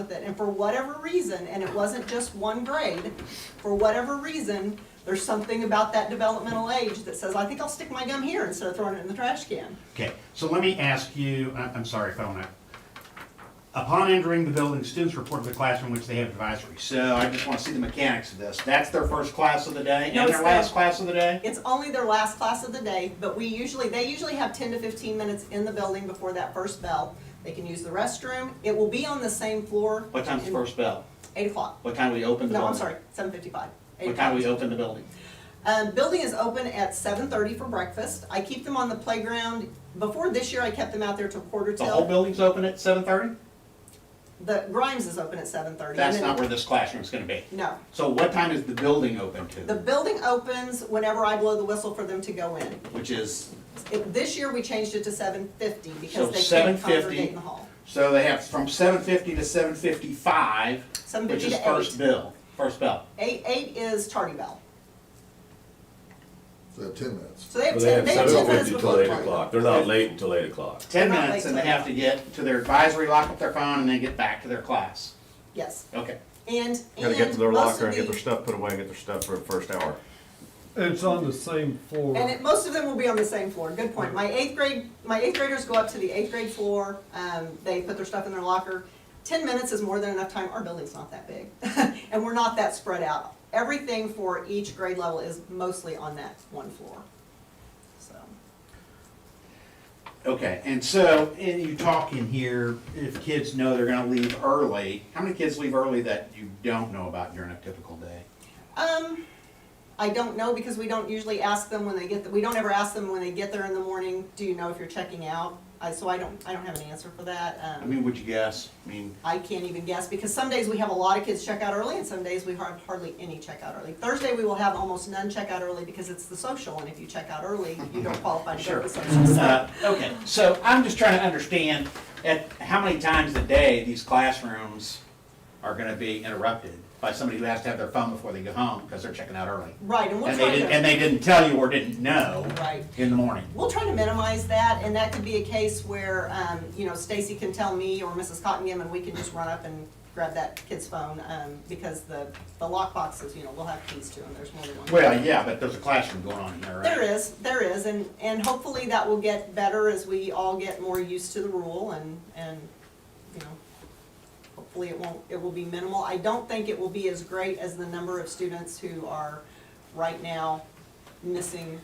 with it, and for whatever reason, and it wasn't just one grade, for whatever reason, there's something about that developmental age that says, I think I'll stick my gum here instead of throwing it in the trash can. Okay, so let me ask you, I- I'm sorry if I want to. Upon entering the building, students report to the classroom which they have advisory. So I just want to see the mechanics of this. That's their first class of the day No, and it's their not. last class of the day? It's only their last class of the day, but we usually, they usually have ten to fifteen minutes in the building before that first bell. They can use the restroom. It will be on the same floor. What time's the first bell? Eight o'clock. What time do we open the No, building? I'm sorry, seven fifty-five. What time do we open the building? Um, building is open at seven thirty for breakfast. I keep them on the playground. Before this year, I kept them out there till quarter The whole till. building's open at seven thirty? The Grimes is open at seven thirty. That's not where this classroom's gonna be. No. So what time is the building open The to? building opens whenever I blow the whistle for them to go in. Which is, It- This year, we changed it to seven fifty So because they can't 7:50. congregate in the hall. so they have from seven fifty to seven fifty-five, which 7:50 is to first 8. bill, first bell. Eight, eight is tardy bell. So they have ten minutes. So they have Well, they ten, have they have ten seven minutes fifty before till the eight tardy o'clock. bell. They're not late until eight o'clock. Ten Not late minutes and they till- have to get to their advisory, lock up their phone, and then get back to their class. Yes, Okay. and, Gotta get and to their most locker of and get their the, stuff put away and get their stuff for the first hour. It's on the same floor. and it, most of them will be on the same floor, good point. My eighth grade, my eighth graders go up to the eighth grade floor, um, they put their stuff in their locker. Ten minutes is more than enough time, our building's not that big, and we're not that spread out. Everything for each grade level is mostly on that one floor, so. Okay, and so, and you talk in here, if kids know they're going to leave early, how many kids leave early that you don't know about during a typical day? Um, I don't know because we don't usually ask them when they get, th- we don't ever ask them when they get there in the morning, do you know if you're checking out? I, so I don't, I don't have an answer for that. I Um, mean, would you guess? I mean, I can't even guess because some days we have a lot of kids check out early and some days we har- hardly any check out early. Thursday, we will have almost none check out early because it's the social and if you check out early, you don't qualify to go to the Mhm. Sure. social. So Uh, Okay, so I'm just trying to understand at how many times a day these classrooms are gonna be interrupted by somebody who has to have their phone before they go home because they're checking out early. Right, and we'll And they try didn't, and to, they didn't tell you or didn't know right. in the morning. We'll try to minimize that, and that could be a case where, um, you know, Stacy can tell me or Mrs. Cottingham, and we can just run up and grab that kid's phone, um, because the, the lock boxes, you know, we'll have keys to them, there's more than one. Well, yeah, but there's a classroom going on here, right? There is, there is, and, and hopefully that will get better as we all get more used to the rule and, and, you know, hopefully it won't, it will be minimal. I don't think it will be as great as the number of students who are right now missing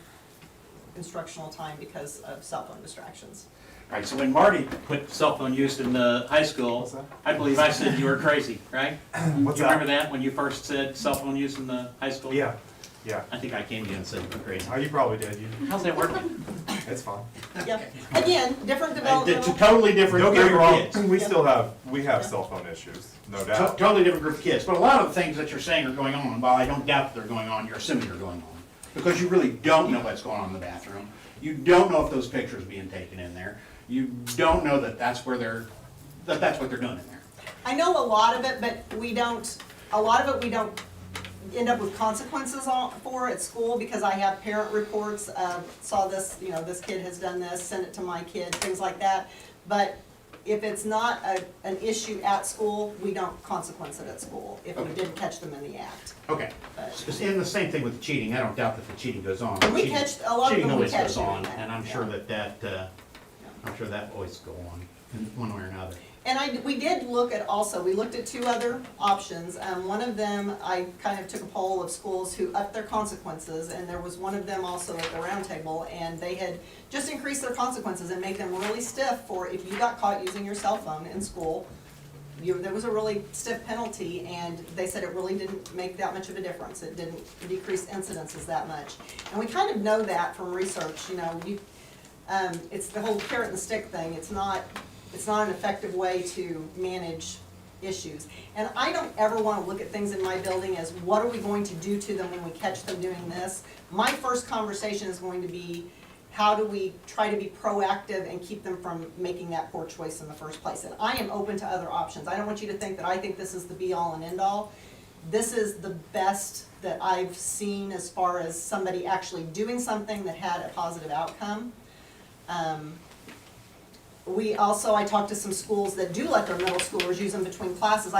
instructional time because of cell phone distractions. Right, so when Marty put cell phone use in the high school, I believe I said you were crazy, right? What's You that? remember that, when you first said cell phone use in the high school? Yeah, yeah. I think I came to you and said you were crazy. Oh, you probably did. You, How's that working? it's fine. Yep, again, different Uh, t- developmental. Totally different. Don't get me group of wrong. kids. We still have we have cell phone issues, no To- doubt. Totally different group of kids, but a lot of the things that you're saying are going on, while I don't doubt that they're going on, you're assuming they're going on. Because you really don't know what's going on in the bathroom, you don't know if those pictures are being taken in there, you don't know that that's where they're, that that's what they're doing in there. I know a lot of it, but we don't, a lot of it, we don't end up with consequences on, for at school because I have parent reports of, saw this, you know, this kid has done this, send it to my kid, things like that. But if it's not a, an issue at school, we don't consequence it at school, if we did catch them in the act. Okay, S- and the same thing with the cheating, I don't doubt that the cheating goes on. We Cheating- catch- a lot of Cheating them we always catch goes doing on, that, and I'm sure yeah. that that, uh, I'm sure that always go on, in one way or another. And I, we did look at also, we looked at two other options. Um, one of them, I kind of took a poll of schools who upped their consequences, and there was one of them also at the roundtable, and they had just increased their consequences and made them really stiff for if you got caught using your cell phone in school, you, there was a really stiff penalty, and they said it really didn't make that much of a difference. It didn't decrease incidences that much. And we kind of know that from research, you know, you, um, it's the whole carrot and stick thing. It's not, it's not an effective way to manage issues. And I don't ever want to look at things in my building as what are we going to do to them when we catch them doing this? My first conversation is going to be, how do we try to be proactive and keep them from making that poor choice in the first place? And I am open to other options. I don't want you to think that I think this is the be-all and end-all this is the best that I've seen as far as somebody actually doing something that had a positive outcome. Um, We also, I talked to some schools that do let their middle schoolers use them between classes.